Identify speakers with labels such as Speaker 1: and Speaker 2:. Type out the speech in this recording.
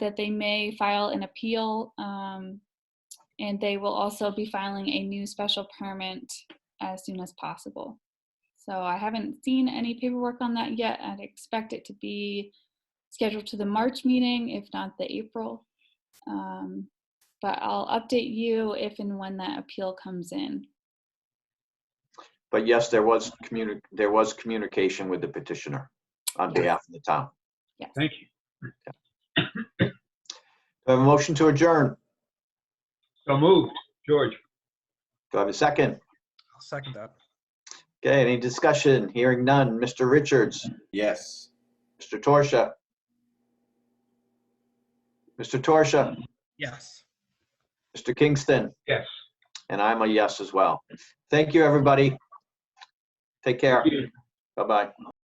Speaker 1: that they may file an appeal, um, and they will also be filing a new special permit as soon as possible. So I haven't seen any paperwork on that yet. I'd expect it to be scheduled to the March meeting, if not the April. Um, But I'll update you if and when that appeal comes in.
Speaker 2: But yes, there was communi, there was communication with the petitioner on
Speaker 1: Yes.
Speaker 2: behalf of the town.
Speaker 1: Yes.
Speaker 3: Thank you.
Speaker 2: Do I have a motion to adjourn?
Speaker 3: So moved. George?
Speaker 2: Do I have a second?
Speaker 4: I'll second that.
Speaker 2: Okay, any discussion? Hearing none. Mr. Richards?
Speaker 5: Yes.
Speaker 2: Mr. Torsia? Mr. Torsia?
Speaker 4: Yes.
Speaker 2: Mr. Kingston?
Speaker 3: Yes.
Speaker 2: And I'm a yes as well. Thank you, everybody. Take care. Bye-bye.